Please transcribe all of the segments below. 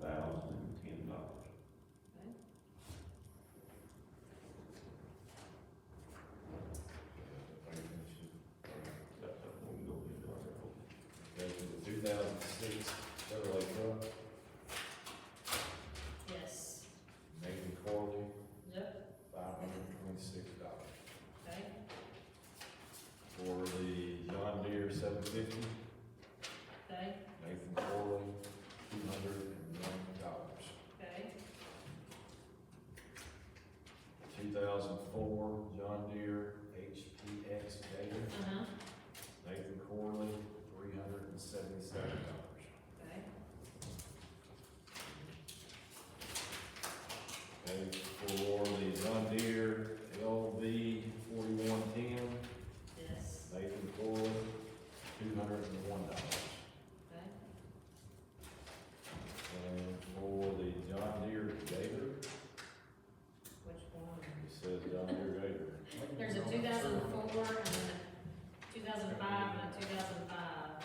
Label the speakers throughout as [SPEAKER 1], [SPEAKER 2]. [SPEAKER 1] thousand and ten dollars. That's something we go into our,
[SPEAKER 2] Okay, so the two thousand six Chevrolet truck,
[SPEAKER 3] Yes.
[SPEAKER 2] Nathan Corley,
[SPEAKER 3] Yep,
[SPEAKER 2] five hundred and twenty-six dollars.
[SPEAKER 3] okay,
[SPEAKER 2] For the John Deere seven fifty,
[SPEAKER 3] okay,
[SPEAKER 2] Nathan Corley, two hundred and one dollars.
[SPEAKER 3] okay,
[SPEAKER 2] Two thousand four John Deere HPX Gator,
[SPEAKER 3] uh-huh,
[SPEAKER 2] Nathan Corley, three hundred and seventy-seven dollars.
[SPEAKER 3] okay,
[SPEAKER 2] Okay, for the John Deere LV forty-one ten,
[SPEAKER 3] yes,
[SPEAKER 2] Nathan Corley, two hundred and one dollars.
[SPEAKER 3] okay,
[SPEAKER 2] And for the John Deere Gator,
[SPEAKER 3] which one?
[SPEAKER 2] it says John Deere Gator.
[SPEAKER 3] There's a two thousand four and a two thousand five and a two thousand five,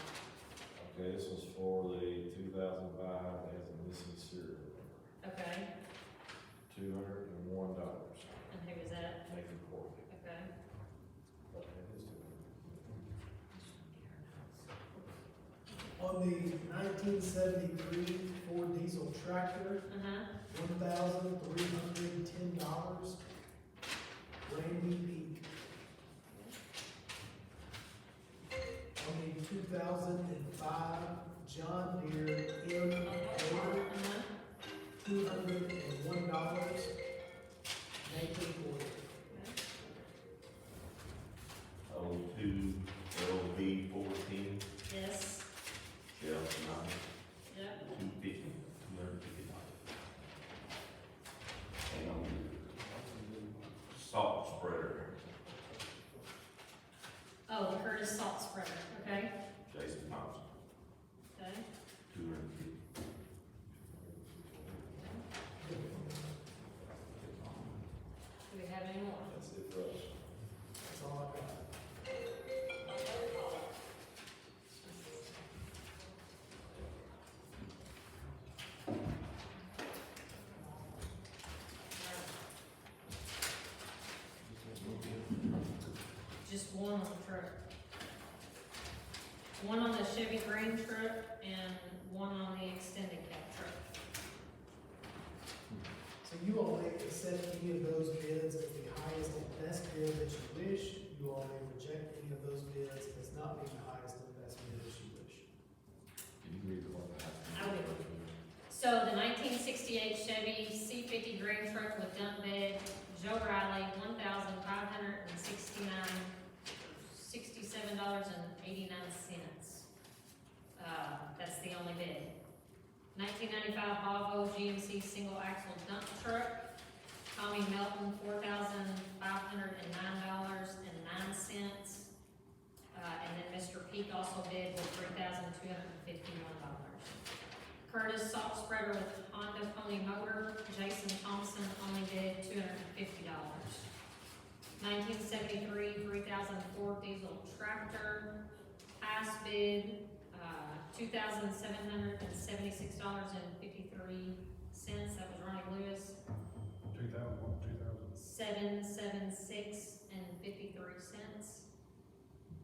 [SPEAKER 2] Okay, this was for the two thousand five, it has a missing serial number,
[SPEAKER 3] okay,
[SPEAKER 2] two hundred and one dollars,
[SPEAKER 3] and who was that,
[SPEAKER 2] Nathan Corley.
[SPEAKER 3] okay?
[SPEAKER 2] Okay, it is $200.
[SPEAKER 4] On the nineteen seventy-three Ford diesel tractor,
[SPEAKER 3] Uh-huh,
[SPEAKER 4] one thousand three hundred and ten dollars. Randy Peak. On the two thousand and five John Deere M Ford,
[SPEAKER 3] uh-huh,
[SPEAKER 4] two hundred and one dollars. Nathan Ford.
[SPEAKER 3] okay,
[SPEAKER 1] oh, two LV fourteen,
[SPEAKER 3] yes,
[SPEAKER 1] Shell's nine,
[SPEAKER 3] yep,
[SPEAKER 1] two fifty, two hundred fifty dollars. And on the salt spreader,
[SPEAKER 3] oh, Curtis Salt Spreader, okay,
[SPEAKER 1] Jason Thompson,
[SPEAKER 3] okay,
[SPEAKER 1] two hundred fifty.
[SPEAKER 3] do we have any more?
[SPEAKER 2] That's it for us.
[SPEAKER 4] That's all I got.
[SPEAKER 3] Just one on the truck. One on the Chevy Green truck and one on the extended cab truck.
[SPEAKER 4] So you all may accept any of those bids as the highest and best bid that you wish. You all may reject any of those bids as not being the highest and best bid that you wish.
[SPEAKER 2] Can you read the one that
[SPEAKER 3] I
[SPEAKER 2] has?
[SPEAKER 3] will. So the nineteen sixty-eight Chevy C fifty Green truck with dump bed, Joe Riley, one thousand five hundred and sixty-nine, sixty-seven dollars and eighty-nine cents. Uh, that's the only bid. Nineteen ninety-five Volvo GMC single axle dump truck, Tommy Melton, four thousand five hundred and nine dollars and nine cents. Uh, and then Mr. Peak also bid with three thousand two hundred and fifty-one dollars. Curtis Salt Spreader with Honda Pony Motor, Jason Thompson only bid two hundred and fifty dollars. Nineteen seventy-three, three thousand four diesel tractor, highest bid, uh, two thousand seven hundred and seventy-six dollars and fifty-three cents, that was Ronnie Lewis,
[SPEAKER 5] Two thousand one, two thousand.
[SPEAKER 3] seven, seven, six, and fifty-three cents.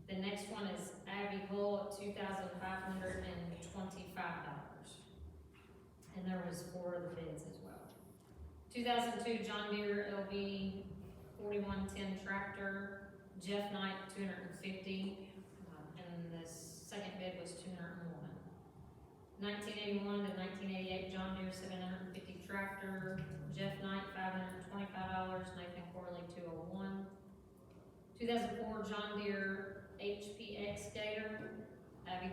[SPEAKER 3] The next one is Abbey Hull at two thousand five hundred and twenty-five dollars. And there was four of the bids as well. Two thousand two John Deere LV forty-one-ten tractor, Jeff Knight, two hundred and fifty, Uh, and the second bid was two hundred and one. Nineteen eighty-one to nineteen eighty-eight John Deere seven hundred and fifty tractor, Jeff Knight, five hundred and twenty-five dollars, Nathan Corley, two oh one. Two thousand four John Deere HPX Gator,